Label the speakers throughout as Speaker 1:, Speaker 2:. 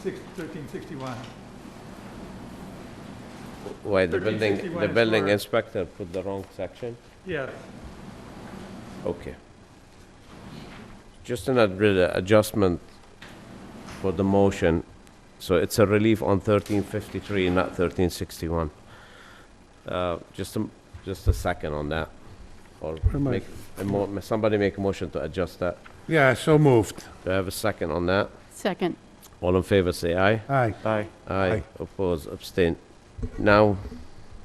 Speaker 1: six- 1361.
Speaker 2: Why, the building,
Speaker 1: 1361
Speaker 2: the
Speaker 1: is
Speaker 2: building
Speaker 1: for-
Speaker 2: inspector put the wrong section?
Speaker 1: Yes,
Speaker 2: Okay. Just an adri- adjustment for the motion, so it's a relief on 1353, not 1361. Uh, Just a, m- just a second on that, or
Speaker 3: am I?
Speaker 2: make, a mo- somebody make a motion to adjust that.
Speaker 3: Yeah, so moved.
Speaker 2: Do I have a second on that?
Speaker 4: Second.
Speaker 2: All in favor, say aye.
Speaker 3: Aye.
Speaker 5: Aye.
Speaker 2: Aye,
Speaker 3: Aye.
Speaker 2: oppose, abstain. Now,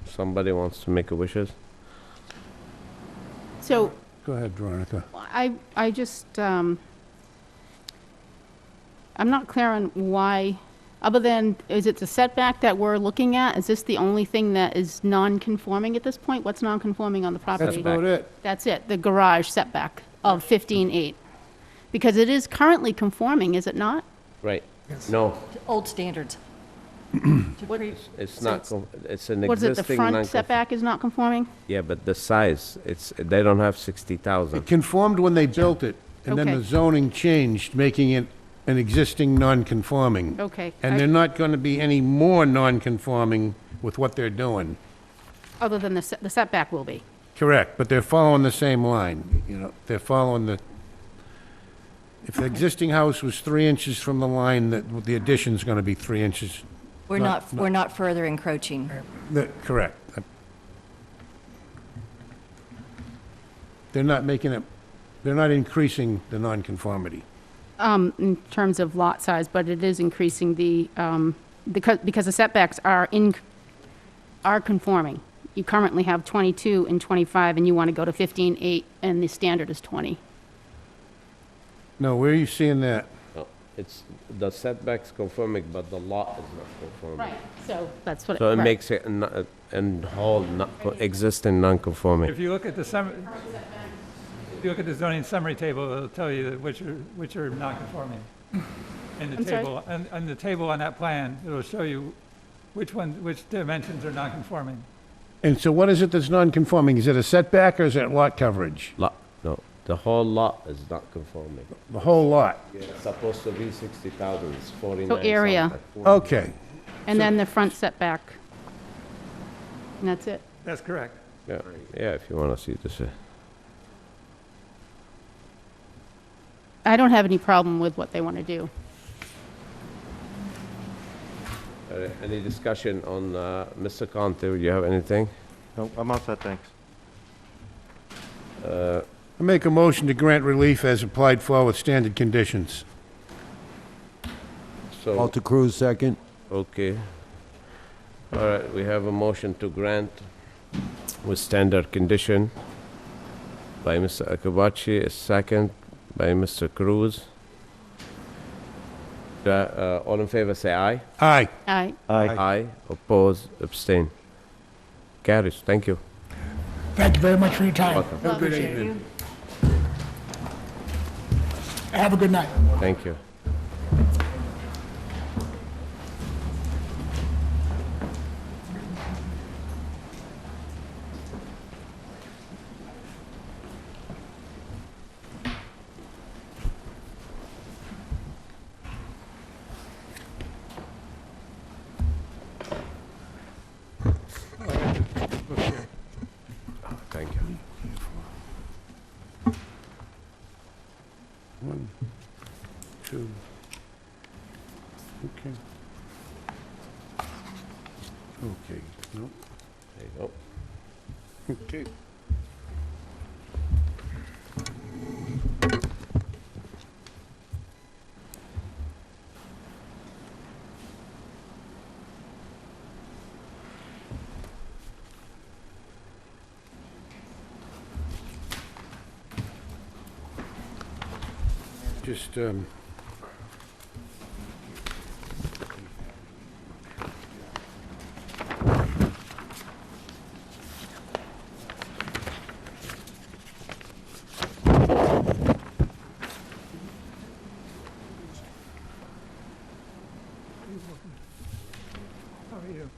Speaker 2: somebody wants to make a wishes?
Speaker 4: So
Speaker 3: Go ahead, Veronica.
Speaker 4: I, I just, um, I'm not clear on why, other than, is it the setback that we're looking at? Is this the only thing that is non-conforming at this point? What's non-conforming on the
Speaker 3: That's
Speaker 4: property?
Speaker 3: about it.
Speaker 4: That's it, the garage setback of 15.8. Because it is currently conforming, is it not?
Speaker 2: Right, no,
Speaker 6: Old standards. To pre-
Speaker 2: it's
Speaker 6: So
Speaker 2: not,
Speaker 6: it's-
Speaker 2: con- it's an
Speaker 4: What is it, the
Speaker 2: existing
Speaker 4: front
Speaker 2: non
Speaker 4: setback is not conforming?
Speaker 2: Yeah, but the size, it's, they don't have sixty
Speaker 3: It
Speaker 2: thousand.
Speaker 3: conformed when they built it, and then
Speaker 4: Okay.
Speaker 3: the zoning changed, making it an existing non-conforming.
Speaker 4: Okay.
Speaker 3: And
Speaker 4: I-
Speaker 3: they're not going to be any more non-conforming with what they're doing.
Speaker 4: Other than the se- the setback will be.
Speaker 3: Correct, but they're following the same line, you know, they're following the, if the existing house was three inches from the line, that the addition's going to be three inches.
Speaker 6: We're
Speaker 3: Not-
Speaker 6: not, we're not further encroaching.
Speaker 3: The- Correct. They're not making it, they're not increasing the nonconformity.
Speaker 4: um, in terms of lot size, but it is increasing the, um, because, because the setbacks are in, are conforming. You currently have 22 and 25, and you want to go to 15, 8, and the standard is 20.
Speaker 3: No, where are you seeing that?
Speaker 2: It's, the setback's conforming, but the lot is not conforming.
Speaker 4: so. That's what.
Speaker 2: So it
Speaker 4: right.
Speaker 2: makes it, an- uh, and whole, not, co- existing non-conforming.
Speaker 1: if you look at the summary, if you look at the zoning summary table, it'll tell you that which are, which are non-conforming. In the
Speaker 4: I'm sorry?
Speaker 1: table, and, and the table on that plan, it'll show you which one, which dimensions are non-conforming.
Speaker 3: And so what is it that's nonconforming? Is it a setback or is it lot coverage?
Speaker 2: Lot, no, the whole lot is not conforming.
Speaker 3: The whole lot?
Speaker 2: It's supposed to be sixty thousand, it's forty-nine
Speaker 4: area.
Speaker 3: Okay.
Speaker 4: And then the front setback. And that's it.
Speaker 1: That's correct.
Speaker 2: Yeah, yeah, if you wanna see this, uh,
Speaker 4: I don't have any problem with what they want to do.
Speaker 2: all right, any discussion on, uh, Mr. Conte, do you have anything?
Speaker 5: No, I'm all set, thanks.
Speaker 3: I make a motion to grant relief as applied for with standard conditions.
Speaker 2: So,
Speaker 7: Walter Cruz, second.
Speaker 2: okay. All right, we have a motion to grant with standard condition by Mr. Akabachi, a second by Mr. Cruz. Uh, uh, All in favor, say aye.
Speaker 3: Aye.
Speaker 4: I,
Speaker 5: Aye.
Speaker 2: Aye, oppose, abstain. Carries, thank you.
Speaker 8: Thank you very much for your time.
Speaker 2: Welcome.
Speaker 3: Have a good
Speaker 6: Appreciate
Speaker 3: evening.
Speaker 6: you.
Speaker 8: Have a good night.
Speaker 2: Thank you. Thank you.
Speaker 3: One, two. Okay. Okay, no,
Speaker 2: There you go.
Speaker 3: okay. Just, um,
Speaker 1: How are you?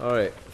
Speaker 2: All right,